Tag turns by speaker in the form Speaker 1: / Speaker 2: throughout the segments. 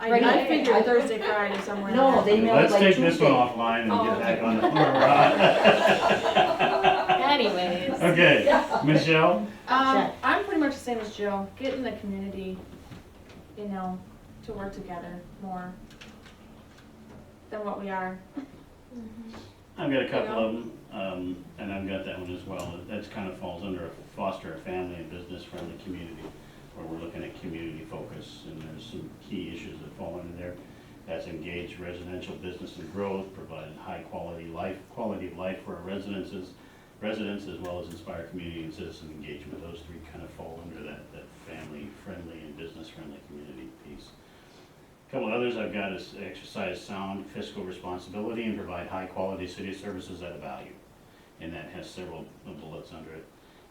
Speaker 1: I,
Speaker 2: Right.
Speaker 1: I figured Thursday, Friday, somewhere. in
Speaker 2: No,
Speaker 1: there.
Speaker 2: they mailed
Speaker 3: Let's
Speaker 2: like
Speaker 3: take this
Speaker 2: Tuesday.
Speaker 3: one offline and
Speaker 1: Oh.
Speaker 3: get back on the front
Speaker 4: Anyways,
Speaker 3: run. Okay, Michelle,
Speaker 1: Um,
Speaker 2: Check.
Speaker 1: I'm pretty much the same as Jill, get in the community, you know, to work together more than what we are.
Speaker 3: I've got a couple of them, um, and I've got that one as well. That's kind of falls under foster a family and business friendly community, where we're looking at community focus, and there's some key issues that fall under there. That's engage residential business and growth, provide high quality life, quality of life for our residences, residents, as well as inspire community and citizen engagement. Those three kind of fall under that, that family friendly and business friendly community piece. Couple others I've got is exercise sound fiscal responsibility and provide high-quality city services at a value. And that has several bullets under it.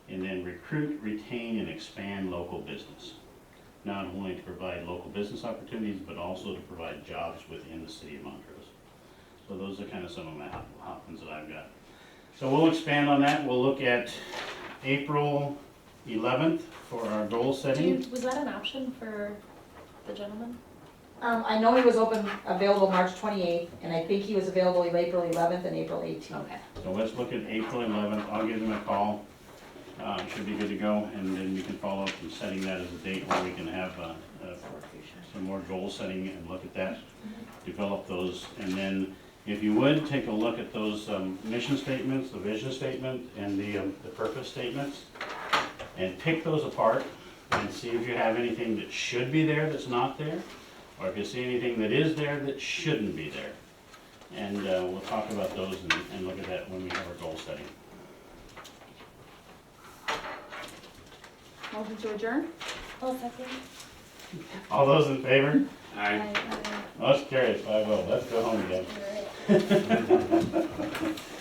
Speaker 3: And then recruit, retain, and expand local business. Not only to provide local business opportunities, but also to provide jobs within the city of Montrose. So those are kind of some of my hot, hot ones that I've got. So we'll expand on that. We'll look at April eleventh for our goal
Speaker 4: do
Speaker 3: setting.
Speaker 4: you, was that an option for the gentleman?
Speaker 2: Um, I know he was open, available March twenty-eighth, and I think he was available April eleventh and April eighteenth.
Speaker 4: Okay.
Speaker 3: So let's look at April eleventh, I'll give them a call, uh, should be good to go, and then we can follow up and setting that as a date where we can have, uh, uh, some more goal setting and look at that, develop those, and then if you would, take a look at those, um, mission statements, the vision statement, and the, um, the purpose statements, and pick those apart, and see if you have anything that should be there that's not there, or if you see anything that is there that shouldn't be there. And uh, we'll talk about those and, and look at that when we have our goal setting.
Speaker 1: Motion to adjourn?
Speaker 4: Well, second.
Speaker 3: All those in favor?
Speaker 4: I,
Speaker 3: Aye.
Speaker 4: I,
Speaker 3: Most carries, I will. Let's go home again.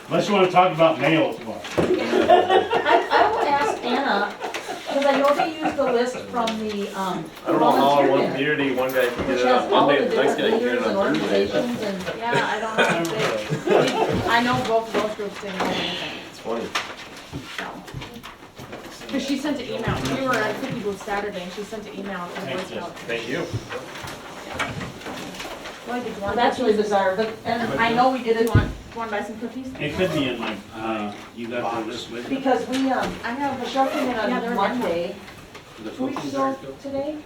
Speaker 3: Unless you want to talk about mail tomorrow.
Speaker 2: I, I will ask Anna, because I know they used the list from the, um,
Speaker 5: I don't know how in
Speaker 2: volunteer
Speaker 5: one
Speaker 2: dinner,
Speaker 5: community, one guy can
Speaker 2: Which
Speaker 5: get it on
Speaker 2: has all the
Speaker 5: Monday, and the next
Speaker 2: different leaders
Speaker 5: guy can get it
Speaker 2: and
Speaker 5: on Thursday.
Speaker 2: organizations and,
Speaker 1: Yeah, I don't know if they, I know both of those groups didn't have anything,
Speaker 5: It's funny.
Speaker 1: so. Cause she sent an email, we were at Cookie Booth Saturday, and she sent an email to the Boy
Speaker 3: Thanks, Jess.
Speaker 1: Scouts.
Speaker 5: Thank you.
Speaker 1: Well, did you
Speaker 2: well,
Speaker 1: want
Speaker 2: that's really
Speaker 1: cookies?
Speaker 2: bizarre, but, and I know we did
Speaker 1: Do you
Speaker 2: it,
Speaker 1: want, wanna buy some cookies?
Speaker 3: It could be in my, uh,
Speaker 6: You got the list with you?
Speaker 2: because we, um,
Speaker 1: I have a
Speaker 2: Michelle came in
Speaker 1: Yeah, there
Speaker 2: on
Speaker 1: were
Speaker 2: Monday,
Speaker 6: The
Speaker 2: two weeks
Speaker 6: cookies
Speaker 2: ago
Speaker 6: are still-
Speaker 2: today,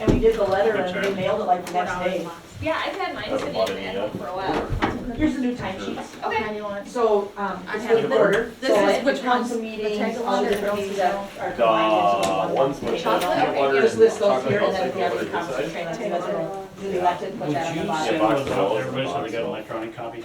Speaker 2: and we did the letter and we mailed it like the
Speaker 1: four
Speaker 2: next
Speaker 1: dollar
Speaker 2: day.
Speaker 1: box.
Speaker 4: yeah, I've had mine
Speaker 5: Haven't
Speaker 4: sitting
Speaker 5: bought
Speaker 4: in
Speaker 5: any
Speaker 4: at
Speaker 5: yet.
Speaker 4: home for a while.
Speaker 2: Here's the new timesheets,
Speaker 4: Okay.
Speaker 1: Now you want-
Speaker 2: so, um,
Speaker 1: I
Speaker 2: it's
Speaker 1: have
Speaker 2: with
Speaker 5: them.
Speaker 2: order,
Speaker 1: This
Speaker 2: so
Speaker 1: is
Speaker 2: like,
Speaker 1: which
Speaker 2: which ones
Speaker 1: ones?
Speaker 2: meetings,
Speaker 1: The
Speaker 2: all the
Speaker 1: tag
Speaker 2: different
Speaker 1: along or
Speaker 2: things that are combined into
Speaker 5: The
Speaker 2: one.
Speaker 5: ones with the
Speaker 4: Chocolate?
Speaker 5: peanut butter.
Speaker 2: Just list those
Speaker 5: chocolate
Speaker 2: here and then
Speaker 5: milk
Speaker 2: the
Speaker 5: chocolate
Speaker 2: other
Speaker 5: milk inside.
Speaker 2: conference trainings, you guys will do the elected, put
Speaker 3: would you
Speaker 2: that on the bottom.
Speaker 3: send those
Speaker 5: Yeah, box of
Speaker 3: out to
Speaker 5: those,
Speaker 3: everybody so
Speaker 5: box
Speaker 3: they
Speaker 5: of
Speaker 3: got an
Speaker 5: those.
Speaker 3: electronic copy?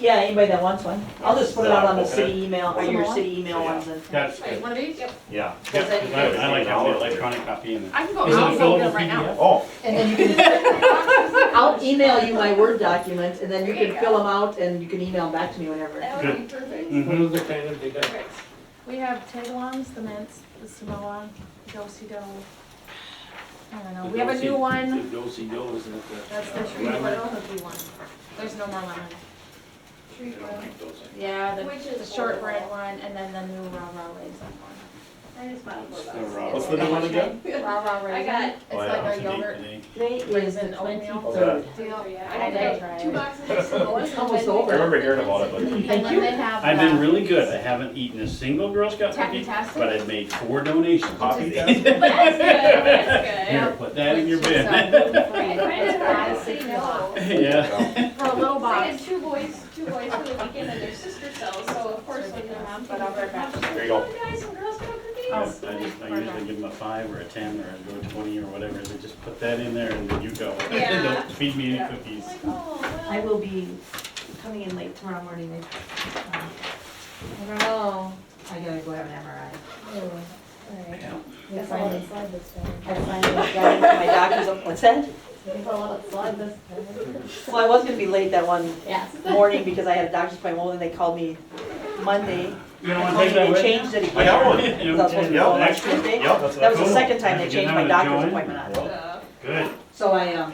Speaker 2: Yeah, anybody that wants one. I'll just put it out on the
Speaker 5: Okay.
Speaker 2: city email, or your city email
Speaker 5: Yeah.
Speaker 2: ones and.
Speaker 3: That's
Speaker 1: Wait,
Speaker 3: good.
Speaker 1: one of these?
Speaker 5: Yeah.
Speaker 3: Yeah,
Speaker 2: Does that-
Speaker 3: I I like having the electronic copy in there.
Speaker 1: I can go,
Speaker 3: Is it
Speaker 1: I'll go get
Speaker 3: available
Speaker 1: them right now.
Speaker 3: PDF?
Speaker 5: Oh,
Speaker 2: And then you can, I'll email you my Word documents and then you
Speaker 4: There you
Speaker 2: can
Speaker 4: go.
Speaker 2: fill them out and you can email them back to me whenever.
Speaker 4: That would be perfect.
Speaker 3: Mhm.
Speaker 6: What are the kind of, they got
Speaker 4: Perfect.
Speaker 1: We have Tagalongs, the mints, the Samoa, do-si-do. I don't know, we have a new
Speaker 6: the
Speaker 1: one,
Speaker 6: do do isn't it? the-
Speaker 1: that's the
Speaker 6: uh,
Speaker 1: tree
Speaker 6: lemon?
Speaker 1: little hooky one. There's no more lemon.
Speaker 6: I don't think those are-
Speaker 1: Yeah, the,
Speaker 4: Which
Speaker 1: the
Speaker 4: is
Speaker 1: shortbread
Speaker 4: horrible.
Speaker 1: one, and then the new raw raw raisin one.
Speaker 3: It's the raw-
Speaker 5: what's the new one again?
Speaker 1: Raw raw raisin.
Speaker 4: got-
Speaker 1: It's
Speaker 5: Oh, yeah.
Speaker 1: like
Speaker 3: What's
Speaker 1: a
Speaker 3: the date
Speaker 1: yogurt
Speaker 3: today?
Speaker 2: Today is the
Speaker 1: Raisin oatmeal.
Speaker 2: twenty-third.
Speaker 1: deal.
Speaker 4: I
Speaker 1: did
Speaker 4: got
Speaker 1: try
Speaker 4: two
Speaker 1: it.
Speaker 4: boxes of Samoas. and
Speaker 2: Almost
Speaker 4: then
Speaker 2: over.
Speaker 5: I remember hearing about it, but
Speaker 4: And
Speaker 2: Thank
Speaker 4: then
Speaker 2: you.
Speaker 4: they have
Speaker 3: I've
Speaker 1: um,
Speaker 3: been
Speaker 4: the-
Speaker 3: really good. I haven't eaten a single Girl Scout cookie,
Speaker 1: Taffy-tastic?
Speaker 3: but I've made four donations.
Speaker 5: Coffee.
Speaker 4: That's good, that's good.
Speaker 3: Here, put that in
Speaker 1: Which
Speaker 3: your
Speaker 1: is,
Speaker 3: bin.
Speaker 1: uh, gluten-free.
Speaker 4: I kind of
Speaker 1: It's
Speaker 4: honestly
Speaker 1: five,
Speaker 4: know.
Speaker 3: Yeah.
Speaker 1: For a little
Speaker 4: I had
Speaker 1: box.
Speaker 4: two boys, two boys for the weekend and their sister sells, so of course when their mom came
Speaker 1: But I'll be back. Oh.
Speaker 4: over.
Speaker 5: There you go.
Speaker 4: Guys and girls got cookies.
Speaker 3: I just, I usually give them a five or a ten or I go twenty or whatever, they just put that in there and then you go.
Speaker 4: Yeah.
Speaker 3: Don't feed me
Speaker 4: Yeah.
Speaker 3: any cookies.
Speaker 4: I'm like, oh, well.
Speaker 2: I will be coming in late tomorrow morning. I um, I don't know, I gotta go have an MRI. I finally, I finally got into my doctor's, app- what's that? Well, I was gonna be late that one
Speaker 4: Yes.
Speaker 2: morning because I had a doctor's appointment and they called me Monday.
Speaker 3: You don't
Speaker 2: They
Speaker 3: wanna
Speaker 2: told me
Speaker 3: take that
Speaker 2: they
Speaker 3: with you?
Speaker 2: changed it again.
Speaker 5: I got one.
Speaker 3: Yeah,
Speaker 2: Because I was supposed to be
Speaker 3: yeah,
Speaker 2: going last
Speaker 3: extra.
Speaker 2: Tuesday.
Speaker 5: Yep, that's
Speaker 2: That was
Speaker 5: what
Speaker 2: the
Speaker 3: Cool.
Speaker 2: second time they
Speaker 3: Did you
Speaker 2: changed
Speaker 3: get
Speaker 2: my
Speaker 3: that with
Speaker 2: doctor's
Speaker 3: Joanne?
Speaker 2: appointment on. it.
Speaker 4: Uh,
Speaker 3: Good.
Speaker 2: So I, um,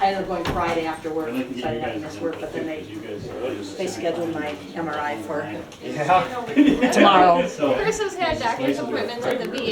Speaker 2: I ended up going Friday after work,
Speaker 3: I'd like to
Speaker 2: so
Speaker 3: get
Speaker 2: I
Speaker 3: you
Speaker 2: didn't have to
Speaker 3: guys
Speaker 2: miss
Speaker 3: an
Speaker 2: work,
Speaker 3: input
Speaker 2: but
Speaker 3: too,
Speaker 2: then they,
Speaker 3: 'cause you guys are really
Speaker 2: they scheduled my MRI for
Speaker 5: Yeah.
Speaker 4: you know,
Speaker 2: tomorrow.
Speaker 3: So-
Speaker 4: Chris has had doctor's appointments at the VA